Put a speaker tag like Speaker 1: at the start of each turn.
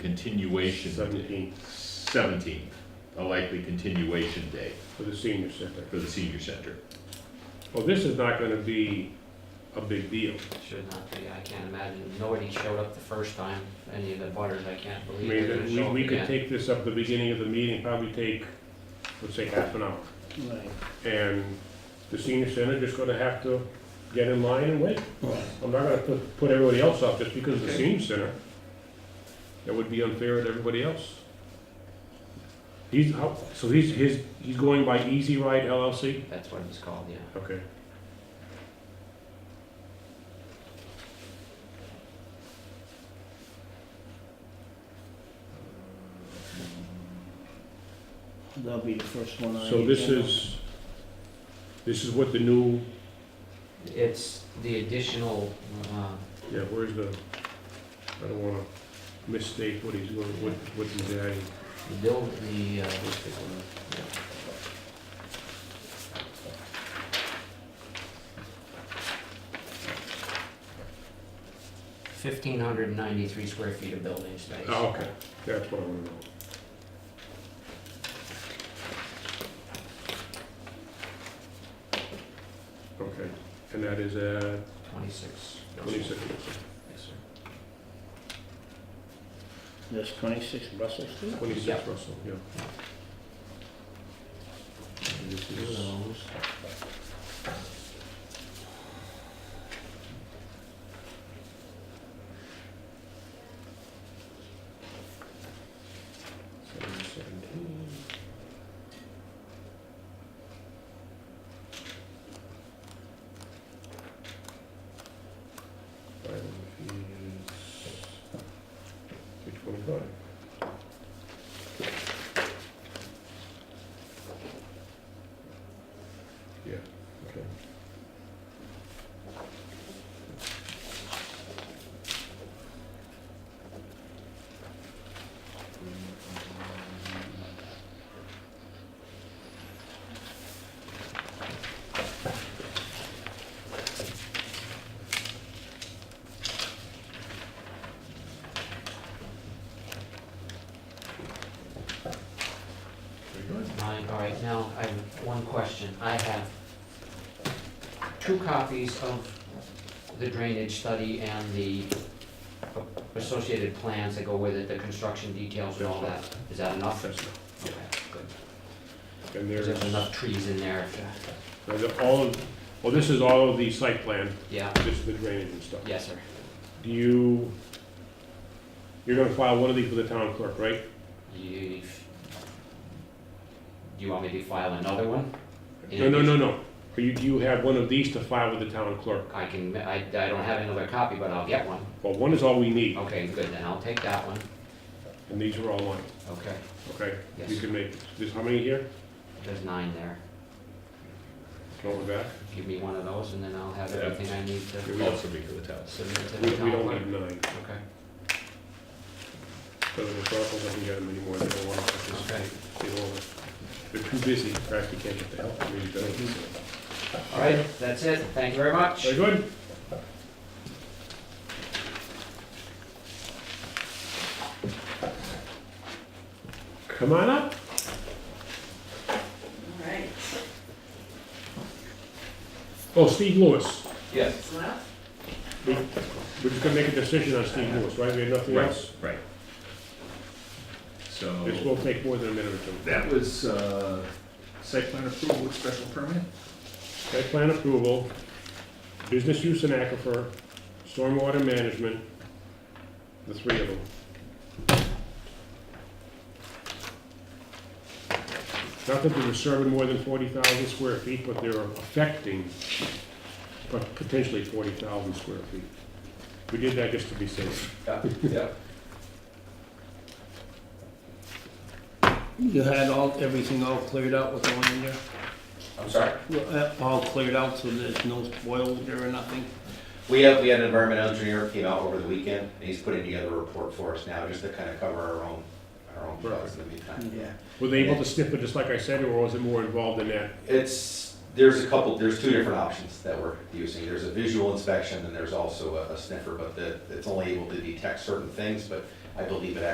Speaker 1: continuation.
Speaker 2: Seventeenth
Speaker 1: Seventeenth, a likely continuation date
Speaker 2: for the senior center.
Speaker 1: for the senior center.
Speaker 2: Well, this is not gonna be a big deal.
Speaker 3: Should not be, I can't imagine, nobody showed up the first time, any of the butters, I can't
Speaker 2: I
Speaker 3: believe
Speaker 2: mean,
Speaker 3: they're
Speaker 2: that
Speaker 3: gonna
Speaker 2: we,
Speaker 3: show up
Speaker 2: we could
Speaker 3: again.
Speaker 2: take this up at the beginning of the meeting, probably take, let's say, half an hour. And the senior center just gonna have to get in line and wait. I'm not gonna put, put everybody else off just because of the senior center. That would be unfair to everybody else. He's, how- so he's, his, he's going by Easy Ride LLC?
Speaker 3: That's what it was called, yeah.
Speaker 2: Okay.
Speaker 4: That'll be the first one on.
Speaker 2: So
Speaker 4: the
Speaker 2: this
Speaker 4: agenda.
Speaker 2: is, this is what the new,
Speaker 3: It's the additional, uh,
Speaker 2: yeah, where's the, I don't wanna mistake what he's going, what, what he's adding.
Speaker 3: the build, the, uh, what's it called? Fifteen hundred and ninety-three square feet of building space.
Speaker 2: Oh, okay, that's what I wanna know. Okay, and that is, uh,
Speaker 3: Twenty-six.
Speaker 2: twenty-six,
Speaker 3: Yes, sir.
Speaker 4: This twenty-six Russell Street?
Speaker 2: twenty-six
Speaker 3: Yep.
Speaker 2: Russell, yeah. And this
Speaker 3: Two of
Speaker 2: is-
Speaker 3: those. Seven, seventeen.
Speaker 2: Filing fees, three twenty-five. Yeah, okay.
Speaker 1: Very good.
Speaker 3: Nine, all right, now, I have one question. I have two copies of the drainage study and the associated plans that go with it, the construction details and all that. Is that enough?
Speaker 2: That's not-
Speaker 3: Okay, good.
Speaker 2: And there's,
Speaker 3: There's enough trees in there, if-
Speaker 2: there's all, of- well, this is all of the site plan,
Speaker 3: yeah,
Speaker 2: this is the drainage and stuff.
Speaker 3: yes, sir.
Speaker 2: Do you, you're gonna file one of these with the town clerk, right?
Speaker 3: You, you want me to file another one?
Speaker 2: No, no, no, no. Are you, do you have one of these to file with the town clerk?
Speaker 3: I can, I, I don't have another copy, but I'll get one.
Speaker 2: Well, one is all we need,
Speaker 3: Okay, good, then I'll take that one.
Speaker 2: and these are all mine,
Speaker 3: Okay,
Speaker 2: okay? You
Speaker 3: yes,
Speaker 2: can make, there's how many here?
Speaker 3: there's nine there.
Speaker 2: Go back.
Speaker 3: Give me one of those and then I'll have
Speaker 1: Yeah.
Speaker 3: everything I need
Speaker 1: It
Speaker 3: to
Speaker 1: would also be for the town.
Speaker 3: submit to
Speaker 2: We,
Speaker 3: the
Speaker 2: we don't
Speaker 3: town.
Speaker 2: need nine,
Speaker 3: Okay,
Speaker 2: so the Rockwell doesn't get them anymore, they don't want to
Speaker 3: okay.
Speaker 2: participate. They don't wanna- They're too busy, in fact, you can't get the help, I mean, you don't.
Speaker 3: All right, that's it. Thank you very much.
Speaker 2: Very good. Come on up.
Speaker 5: All right,
Speaker 2: Oh, Steve Lewis.
Speaker 3: Yes.
Speaker 5: what's left?
Speaker 2: We're just gonna make a decision on Steve Lewis, right? We have nothing
Speaker 1: Right,
Speaker 2: else?
Speaker 1: right.
Speaker 2: This
Speaker 1: So
Speaker 2: won't take more than a minute or two.
Speaker 1: that was uh, site plan approval with special permit?
Speaker 2: Site plan approval, business use in aquifer, stormwater management, the three of them. Not that they're serving more than forty thousand square feet, but they're affecting pot- potentially forty thousand square feet. We did that just to be safe.
Speaker 3: Yeah.
Speaker 4: You had all, everything all cleared out with the land there?
Speaker 6: I'm sorry.
Speaker 4: Well, uh, All cleared out, so there's no spoils there or nothing?
Speaker 6: We have, we had an environmental engineer came out over the weekend, and he's putting together a report for us now, just to kind of cover our own, our own costs in the meantime, yeah.
Speaker 2: Were they able to snip it just like I said, or was it more involved than that?
Speaker 6: It's, there's a couple, there's two different options that we're using. There's a visual inspection, and there's also a a sniffer, but the, it's only able to detect certain things, but I believe it